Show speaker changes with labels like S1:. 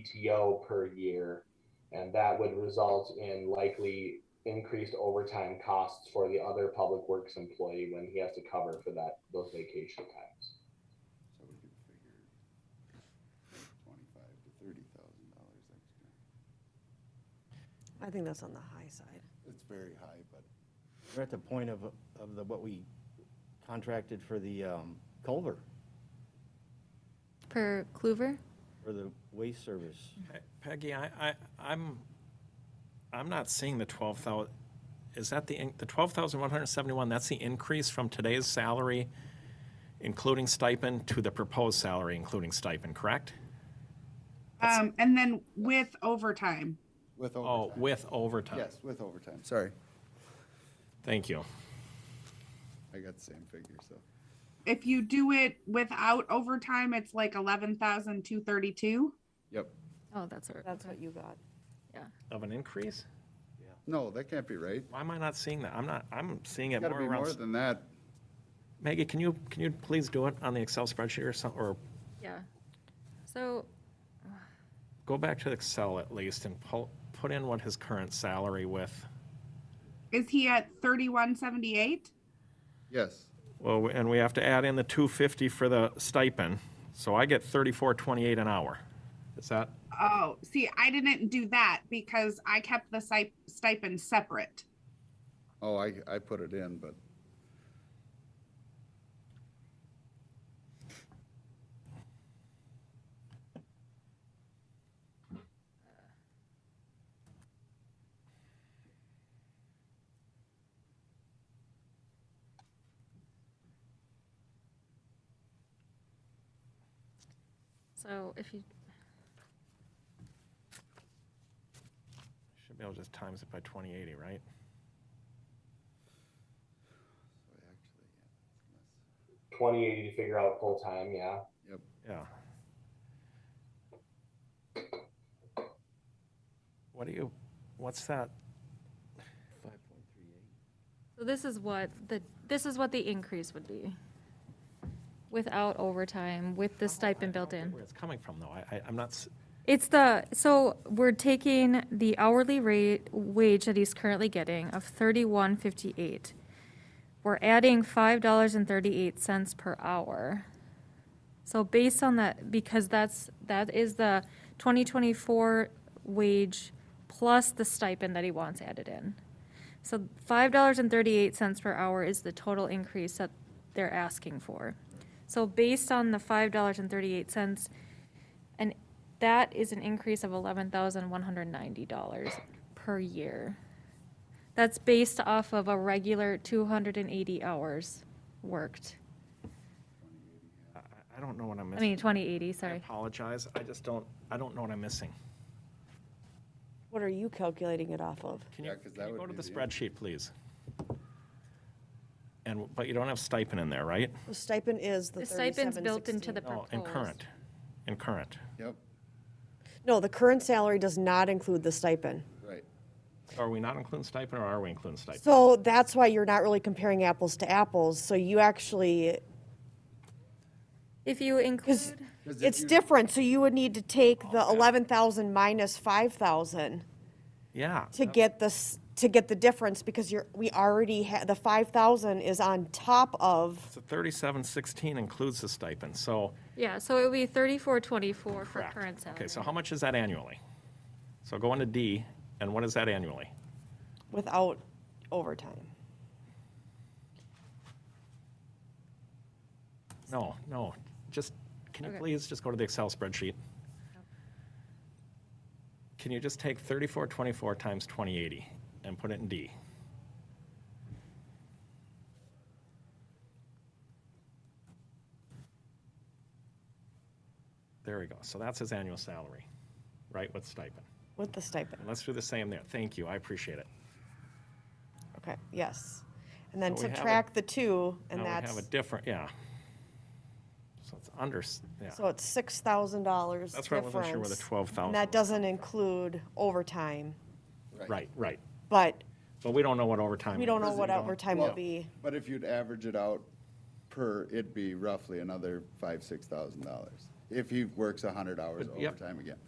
S1: PTO per year. And that would result in likely increased overtime costs for the other public works employee when he has to cover for that, those vacation times.
S2: So we could figure twenty-five to thirty thousand dollars extra.
S3: I think that's on the high side.
S2: It's very high, but
S4: We're at the point of, of the, what we contracted for the um, culvert,
S5: per Clover?
S4: for the waste service.
S6: Pe- Peggy, I, I, I'm, I'm not seeing the twelve thousand. Is that the, in- the twelve thousand one hundred seventy-one, that's the increase from today's salary, including stipend, to the proposed salary, including stipend, correct?
S7: Um, and then with overtime.
S2: with
S6: Oh,
S2: overtime.
S6: with overtime.
S2: Yes, with overtime, sorry.
S6: Thank you.
S2: I got the same figure, so.
S7: If you do it without overtime, it's like eleven thousand two thirty-two.
S2: Yep.
S5: Oh, that's right.
S3: That's what you got.
S6: Of an increase?
S2: No, that can't be right.
S6: Why am I not seeing that? I'm not, I'm seeing it
S2: Gotta
S6: more
S2: be more
S6: around.
S2: than that.
S6: Maggie, can you, can you please do it on the Excel spreadsheet or some, or
S5: Yeah. So,
S6: go back to Excel at least and pull, put in what his current salary with,
S7: Is he at thirty-one seventy-eight?
S2: Yes,
S6: well, we- and we have to add in the two fifty for the stipend, so I get thirty-four twenty-eight an hour. Is that,
S7: Oh, see, I didn't do that because I kept the si- stipend separate.
S2: oh, I, I put it in, but
S5: so if you,
S6: should be able to just times it by twenty eighty, right?
S1: Twenty eighty to figure out full time, yeah.
S6: Yeah. What do you, what's that?
S5: so this is what the, this is what the increase would be. Without overtime, with the stipend built in.
S6: Where it's coming from, though, I, I, I'm not, s-
S5: It's the, so we're taking the hourly rate, wage that he's currently getting of thirty-one fifty-eight. We're adding five dollars and thirty-eight cents per hour. So based on that, because that's, that is the twenty twenty-four wage plus the stipend that he wants added in. So five dollars and thirty-eight cents per hour is the total increase that they're asking for. So based on the five dollars and thirty-eight cents, and that is an increase of eleven thousand one hundred ninety dollars per year. That's based off of a regular two hundred and eighty hours worked.
S6: I, I don't know what I'm
S5: I
S6: missing.
S5: mean, twenty eighty,
S6: I
S5: sorry.
S6: apologize, I just don't, I don't know what I'm missing.
S3: What are you calculating it off of?
S6: Can you,
S2: Yeah, 'cause that
S6: can you
S2: would
S6: go to
S2: be
S6: the
S2: the
S6: spreadsheet, please? And, but you don't have stipend in there, right?
S3: The stipend is the
S5: The stipend's built into the
S3: 37.16.
S6: No, Oh, and
S5: proposed.
S6: current, and current.
S2: yep,
S3: No, the current salary does not include the stipend.
S2: right.
S6: Are we not including stipend or are we including stipend?
S3: So that's why you're not really comparing apples to apples. So you actually,
S5: If you include,
S2: 'Cause if
S3: it's
S2: you-
S3: different. So you would need to take the eleven thousand minus five thousand
S6: Yeah,
S3: to get this, to get the difference because you're, we already had, the five thousand is on top of,
S6: so thirty-seven sixteen includes the stipend, so.
S5: yeah, so it would be thirty-four twenty-four for
S6: correct.
S5: current salary.
S6: Okay, so how much is that annually? So go into D, and what is that annually?
S3: without overtime.
S6: No, no, just, can you
S5: Okay.
S6: please just go to the Excel spreadsheet? Can you just take thirty-four twenty-four times twenty eighty and put it in D? There we go. So that's his annual salary, right, with stipend.
S3: With the stipend,
S6: And let's do the same there. Thank you, I appreciate it.
S3: okay, yes. And then
S6: So we have a-
S3: subtract the two, and
S6: Now we have
S3: that's,
S6: a different, yeah. So it's under, s- yeah.
S3: so it's six thousand dollars
S6: That's why I wasn't sure where the twelve thousand.
S3: And that doesn't include overtime,
S6: Right, right.
S3: but
S6: But we don't know what overtime is.
S3: we don't know what overtime will
S2: Well,
S3: be.
S2: But if you'd average it out per, it'd be roughly another five, six thousand dollars. If he works a hundred hours
S6: But, yep.
S2: overtime again.